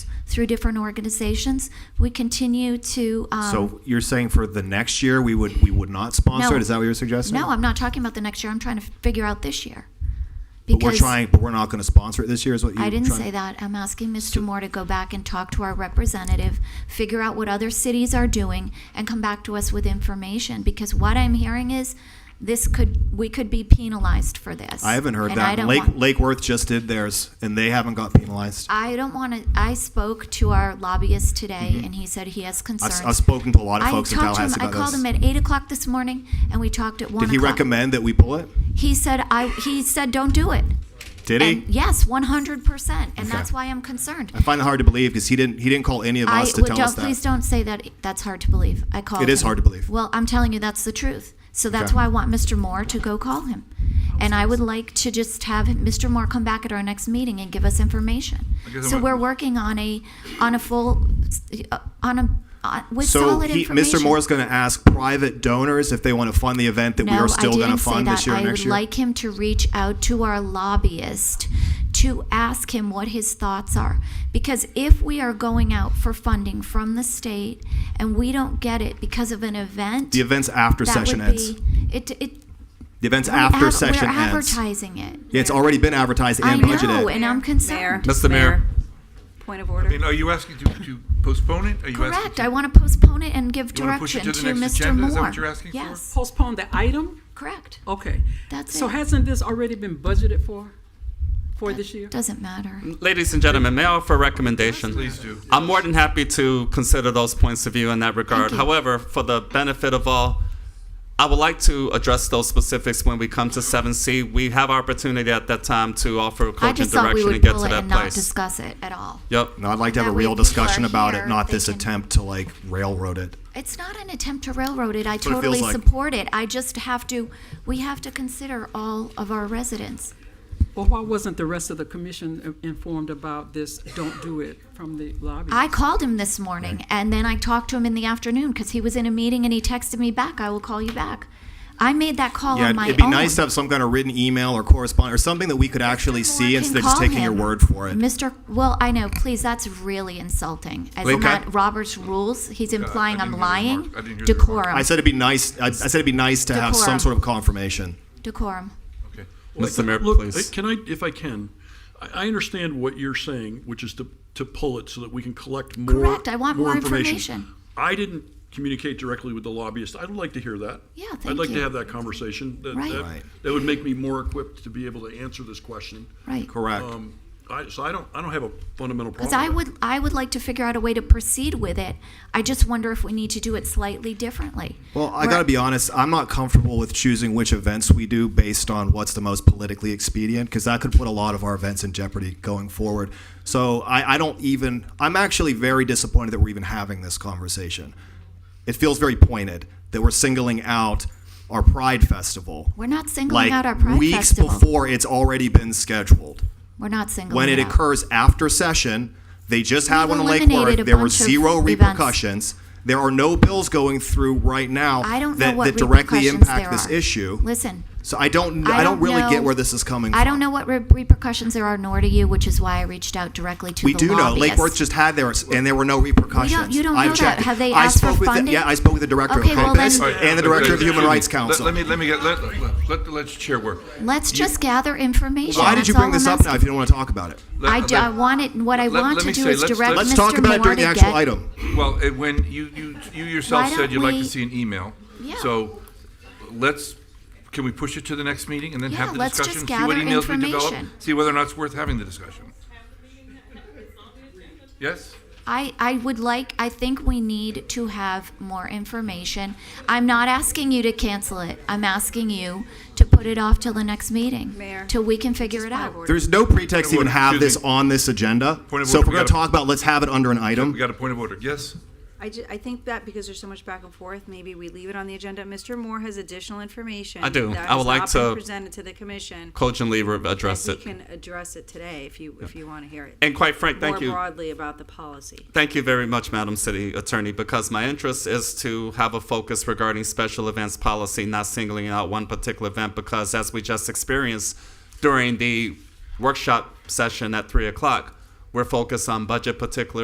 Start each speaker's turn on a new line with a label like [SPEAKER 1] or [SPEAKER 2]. [SPEAKER 1] through different organizations. We continue to. Um,
[SPEAKER 2] So you're saying for the next year, we would, we would not sponsor
[SPEAKER 1] No.
[SPEAKER 2] it? Is that what you're suggesting?
[SPEAKER 1] no, I'm not talking about the next year. I'm trying to figure out this year.
[SPEAKER 2] But we're trying, but we're not going to sponsor it this year is what you're
[SPEAKER 1] I
[SPEAKER 2] trying?
[SPEAKER 1] didn't say that. I'm asking Mr. Moore to go back and talk to our representative, figure out what other cities are doing, and come back to us with information, because what I'm hearing is this could, we could be penalized for this.
[SPEAKER 2] I haven't heard
[SPEAKER 1] And I
[SPEAKER 2] that.
[SPEAKER 1] don't
[SPEAKER 2] Lake,
[SPEAKER 1] want- Uh,
[SPEAKER 2] Lake Worth just did theirs and they haven't got penalized.
[SPEAKER 1] I don't want to, I spoke to our lobbyist today,
[SPEAKER 2] Mm-hmm.
[SPEAKER 1] and he said he has
[SPEAKER 2] I've,
[SPEAKER 1] concerns.
[SPEAKER 2] I've spoken to a lot of
[SPEAKER 1] I
[SPEAKER 2] folks in
[SPEAKER 1] talked to him-
[SPEAKER 2] Tallahassee about
[SPEAKER 1] I called
[SPEAKER 2] this.
[SPEAKER 1] him at eight o'clock this morning, and we talked at one
[SPEAKER 2] Did
[SPEAKER 1] o'clock.
[SPEAKER 2] he recommend that we pull it?
[SPEAKER 1] He said, I, he said, don't do it.
[SPEAKER 2] Did he?
[SPEAKER 1] And yes, one hundred percent, and
[SPEAKER 2] Okay.
[SPEAKER 1] that's why I'm concerned.
[SPEAKER 2] I find it hard to believe because he didn't, he didn't call any of
[SPEAKER 1] I
[SPEAKER 2] us to
[SPEAKER 1] well,
[SPEAKER 2] tell
[SPEAKER 1] don't,
[SPEAKER 2] us that.
[SPEAKER 1] Please don't say that. That's hard to believe. I called.
[SPEAKER 2] It is
[SPEAKER 1] him.
[SPEAKER 2] hard to believe.
[SPEAKER 1] Well, I'm telling you, that's the truth. So that's
[SPEAKER 2] Okay.
[SPEAKER 1] why I want Mr. Moore to go call him, and I would like to just have Mr. Moore come back at our next meeting and give us information.
[SPEAKER 3] I guess
[SPEAKER 1] So
[SPEAKER 3] I'm-
[SPEAKER 1] we're working on a on a full uh, on a on, with
[SPEAKER 2] So
[SPEAKER 1] solid
[SPEAKER 2] he,
[SPEAKER 1] information.
[SPEAKER 2] Mr. Moore's going to ask private donors if they want to fund the event that we
[SPEAKER 1] No,
[SPEAKER 2] are
[SPEAKER 1] I
[SPEAKER 2] still going to
[SPEAKER 1] didn't say
[SPEAKER 2] fund
[SPEAKER 1] that.
[SPEAKER 2] this year and
[SPEAKER 1] I
[SPEAKER 2] next
[SPEAKER 1] would
[SPEAKER 2] year?
[SPEAKER 1] like him to reach out to our lobbyist to ask him what his thoughts are. Because if we are going out for funding from the state and we don't get it because of an event,
[SPEAKER 2] The event's after
[SPEAKER 1] that
[SPEAKER 2] session
[SPEAKER 1] would
[SPEAKER 2] ends.
[SPEAKER 1] be it. it
[SPEAKER 2] The event's
[SPEAKER 1] we
[SPEAKER 2] after
[SPEAKER 1] ad-
[SPEAKER 2] session
[SPEAKER 1] we're
[SPEAKER 2] ends.
[SPEAKER 1] advertising it.
[SPEAKER 2] Yeah, it's already been advertised
[SPEAKER 1] I
[SPEAKER 2] and
[SPEAKER 1] know,
[SPEAKER 2] budgeted.
[SPEAKER 1] and I'm
[SPEAKER 4] Mayor,
[SPEAKER 1] concerned.
[SPEAKER 3] That's the mayor.
[SPEAKER 4] Point of
[SPEAKER 3] I mean,
[SPEAKER 4] order.
[SPEAKER 3] are you asking to, to postpone it? Are you asking
[SPEAKER 1] Correct.
[SPEAKER 3] to-
[SPEAKER 1] I want to postpone it and give
[SPEAKER 3] You wanna push it
[SPEAKER 1] direction
[SPEAKER 3] to the next
[SPEAKER 1] Mr.
[SPEAKER 3] agenda?
[SPEAKER 1] Moore.
[SPEAKER 3] Is that what you're asking for?
[SPEAKER 1] Yes,
[SPEAKER 5] Postpone the item?
[SPEAKER 1] correct.
[SPEAKER 5] Okay.
[SPEAKER 1] That's
[SPEAKER 5] So
[SPEAKER 1] it.
[SPEAKER 5] hasn't this already been budgeted for, for this year?
[SPEAKER 1] Doesn't matter.
[SPEAKER 2] Mm.
[SPEAKER 6] Ladies and gentlemen, may I offer a recommendation?
[SPEAKER 3] Please do.
[SPEAKER 6] I'm more than happy to consider those points of view in that
[SPEAKER 1] Thank
[SPEAKER 6] regard.
[SPEAKER 1] you.
[SPEAKER 6] However, for the benefit of all, I would like to address those specifics when we come to 7C. We have opportunity at that time to offer
[SPEAKER 1] I
[SPEAKER 6] cogent
[SPEAKER 1] just thought we
[SPEAKER 6] direction and
[SPEAKER 1] would
[SPEAKER 6] get
[SPEAKER 1] pull
[SPEAKER 6] to
[SPEAKER 1] it
[SPEAKER 6] that
[SPEAKER 1] and not
[SPEAKER 6] place.
[SPEAKER 1] discuss it at all.
[SPEAKER 6] Yep.
[SPEAKER 2] No, I'd like to have a
[SPEAKER 1] That way
[SPEAKER 2] real
[SPEAKER 1] people are
[SPEAKER 2] discussion about it,
[SPEAKER 1] here,
[SPEAKER 2] not
[SPEAKER 1] they
[SPEAKER 2] this
[SPEAKER 1] can-
[SPEAKER 2] attempt to like railroad it.
[SPEAKER 1] It's not an attempt to railroad it. I
[SPEAKER 2] what it feels
[SPEAKER 1] totally
[SPEAKER 2] like.
[SPEAKER 1] support it. I just have to, we have to consider all of our residents.
[SPEAKER 5] Well, why wasn't the rest of the commission i- informed about this, don't do it from the lobby?
[SPEAKER 1] I called him this morning and then I talked to him in the afternoon because he was in a meeting and he texted me back, I will call you back. I made that call
[SPEAKER 2] Yeah,
[SPEAKER 1] on Oh, my own.
[SPEAKER 2] it'd be nice to have some kind of written email or correspondence or something that we could actually see
[SPEAKER 1] Moore
[SPEAKER 2] instead
[SPEAKER 1] can
[SPEAKER 2] of just
[SPEAKER 1] call
[SPEAKER 2] taking your
[SPEAKER 1] him.
[SPEAKER 2] word for it.
[SPEAKER 1] Mr. Well, I know, please, that's really insulting. As
[SPEAKER 2] Wait, can I-
[SPEAKER 1] not Robert's rules, he's implying
[SPEAKER 3] I
[SPEAKER 1] I'm
[SPEAKER 3] didn't hear the
[SPEAKER 1] lying.
[SPEAKER 3] remark. I didn't hear the remark.
[SPEAKER 1] Decorum,
[SPEAKER 2] I said it'd be nice. I, I said it'd be nice to have some
[SPEAKER 1] Decorum.
[SPEAKER 2] sort of confirmation.
[SPEAKER 1] decorum.
[SPEAKER 3] Okay.
[SPEAKER 6] Mr. Mayor,
[SPEAKER 7] Look,
[SPEAKER 6] please.
[SPEAKER 7] Can I, if I can, I, I understand what you're saying, which is to, to pull it so that we can collect more.
[SPEAKER 1] Correct. I want more information.
[SPEAKER 7] I didn't communicate directly with the lobbyist. I'd like to hear that.
[SPEAKER 1] Yeah,
[SPEAKER 7] I'd
[SPEAKER 1] thank
[SPEAKER 7] like to
[SPEAKER 1] you.
[SPEAKER 7] have that conversation. That-
[SPEAKER 1] Right.
[SPEAKER 7] that-
[SPEAKER 2] Right.
[SPEAKER 7] That would make me more equipped to be able to answer this question.
[SPEAKER 1] Right.
[SPEAKER 2] Correct.
[SPEAKER 7] Um, I, so I don't, I don't have a fundamental problem.
[SPEAKER 1] Because I
[SPEAKER 7] with it.
[SPEAKER 1] would, I would like to figure out a way to proceed with it. I just wonder if we need to do it slightly differently.
[SPEAKER 2] Well, I
[SPEAKER 1] We're-
[SPEAKER 2] got to be honest, I'm not comfortable with choosing which events we do based on what's the most politically expedient because that could put a lot of our events in jeopardy going forward. So I, I don't even, I'm actually very disappointed that we're even having this conversation. It feels very pointed that we're singling out our Pride Festival.
[SPEAKER 1] We're not singling
[SPEAKER 2] like
[SPEAKER 1] out our Pride
[SPEAKER 2] weeks
[SPEAKER 1] Festival.
[SPEAKER 2] before it's already been scheduled.
[SPEAKER 1] We're not singling
[SPEAKER 2] When it
[SPEAKER 1] out.
[SPEAKER 2] occurs after session, they just had
[SPEAKER 1] Oh, We've
[SPEAKER 2] one in Lake
[SPEAKER 1] eliminated
[SPEAKER 2] Worth.
[SPEAKER 1] a
[SPEAKER 2] There were
[SPEAKER 1] bunch of
[SPEAKER 2] zero
[SPEAKER 1] events.
[SPEAKER 2] repercussions. There are no bills going through right now
[SPEAKER 1] I don't know
[SPEAKER 2] that,
[SPEAKER 1] what
[SPEAKER 2] that directly
[SPEAKER 1] repercussions
[SPEAKER 2] impact
[SPEAKER 1] there
[SPEAKER 2] this
[SPEAKER 1] are.
[SPEAKER 2] issue.
[SPEAKER 1] Listen,
[SPEAKER 2] So I don't,
[SPEAKER 1] I
[SPEAKER 2] I don't
[SPEAKER 1] don't
[SPEAKER 2] really
[SPEAKER 1] know-
[SPEAKER 2] get where this is coming from.
[SPEAKER 1] I don't know what re- repercussions there are, nor do you, which is why I reached out directly to
[SPEAKER 2] We
[SPEAKER 1] the
[SPEAKER 2] do know. Lake
[SPEAKER 1] lobbyists.
[SPEAKER 2] Worth just had theirs, and there were no repercussions.
[SPEAKER 1] you don't
[SPEAKER 2] I've
[SPEAKER 1] know that.
[SPEAKER 2] checked it.
[SPEAKER 1] Have they
[SPEAKER 2] I
[SPEAKER 1] asked for
[SPEAKER 2] spoke with the-
[SPEAKER 1] funding?
[SPEAKER 2] Yeah, I spoke with the director of
[SPEAKER 1] Okay, well
[SPEAKER 2] Compass
[SPEAKER 1] then-
[SPEAKER 2] and the director of the Human
[SPEAKER 3] Excuse me.
[SPEAKER 2] Rights
[SPEAKER 3] Let-
[SPEAKER 2] Council.
[SPEAKER 3] Let me, let me get, let, let, let the legislature work.
[SPEAKER 1] Let's just gather information.
[SPEAKER 2] Why did you
[SPEAKER 1] That's
[SPEAKER 2] bring
[SPEAKER 1] all
[SPEAKER 2] this
[SPEAKER 1] I'm
[SPEAKER 2] up now if
[SPEAKER 1] asking.
[SPEAKER 2] you don't want to talk about it?
[SPEAKER 3] Let-
[SPEAKER 1] I, do,
[SPEAKER 3] let-
[SPEAKER 1] I want it. What I
[SPEAKER 3] let-
[SPEAKER 1] want
[SPEAKER 3] let me
[SPEAKER 1] to do
[SPEAKER 3] say,
[SPEAKER 1] is
[SPEAKER 3] let's-
[SPEAKER 1] direct
[SPEAKER 3] let's-
[SPEAKER 2] Let's
[SPEAKER 1] Mr.
[SPEAKER 2] talk about it
[SPEAKER 1] Moore
[SPEAKER 2] during the
[SPEAKER 1] to
[SPEAKER 2] actual
[SPEAKER 1] get-
[SPEAKER 2] item.
[SPEAKER 3] Well, it- when you, you, you yourself
[SPEAKER 1] Why don't
[SPEAKER 3] said you'd like
[SPEAKER 1] we-
[SPEAKER 3] to see an email.
[SPEAKER 1] Yeah.
[SPEAKER 3] So let's, can we push it to the next meeting and then have
[SPEAKER 1] Yeah,
[SPEAKER 3] the
[SPEAKER 1] let's
[SPEAKER 3] discussion?
[SPEAKER 1] just gather
[SPEAKER 3] See what emails we develop,
[SPEAKER 1] information.
[SPEAKER 3] see whether or not it's worth having the discussion. Yes?
[SPEAKER 1] I, I would like, I think we need to have more information. I'm not asking you to cancel it. I'm asking you to put it off till the next meeting.
[SPEAKER 4] Mayor,
[SPEAKER 1] Till we can figure it
[SPEAKER 4] point of
[SPEAKER 1] out.
[SPEAKER 4] order.
[SPEAKER 2] There's no pretext to even
[SPEAKER 3] Point of order,
[SPEAKER 2] have this
[SPEAKER 3] excuse me.
[SPEAKER 2] on this agenda.
[SPEAKER 3] Point of
[SPEAKER 2] So if
[SPEAKER 3] order,
[SPEAKER 2] we're
[SPEAKER 3] we
[SPEAKER 2] going to
[SPEAKER 3] gotta-
[SPEAKER 2] talk about, it, let's have it under an
[SPEAKER 3] We
[SPEAKER 2] item.
[SPEAKER 3] got a point of order. Yes?
[SPEAKER 4] I ju- I think that because there's so much back and forth, maybe we leave it on the agenda. Mr. Moore has additional information.
[SPEAKER 6] I do.
[SPEAKER 4] that
[SPEAKER 6] I would
[SPEAKER 4] has
[SPEAKER 6] like
[SPEAKER 4] not been
[SPEAKER 6] to
[SPEAKER 4] Presented to the commission.
[SPEAKER 6] Cogently re- address
[SPEAKER 4] We
[SPEAKER 6] it.
[SPEAKER 4] can address it today if you, if you want to hear it.
[SPEAKER 6] And quite frank, thank
[SPEAKER 4] More
[SPEAKER 6] you.
[SPEAKER 4] broadly about the policy.
[SPEAKER 6] Thank you very much, Madam City Attorney, because my interest is to have a focus regarding special events policy, not singling out one particular event, because as we just experienced during the workshop session at three o'clock, we're focused on budget particular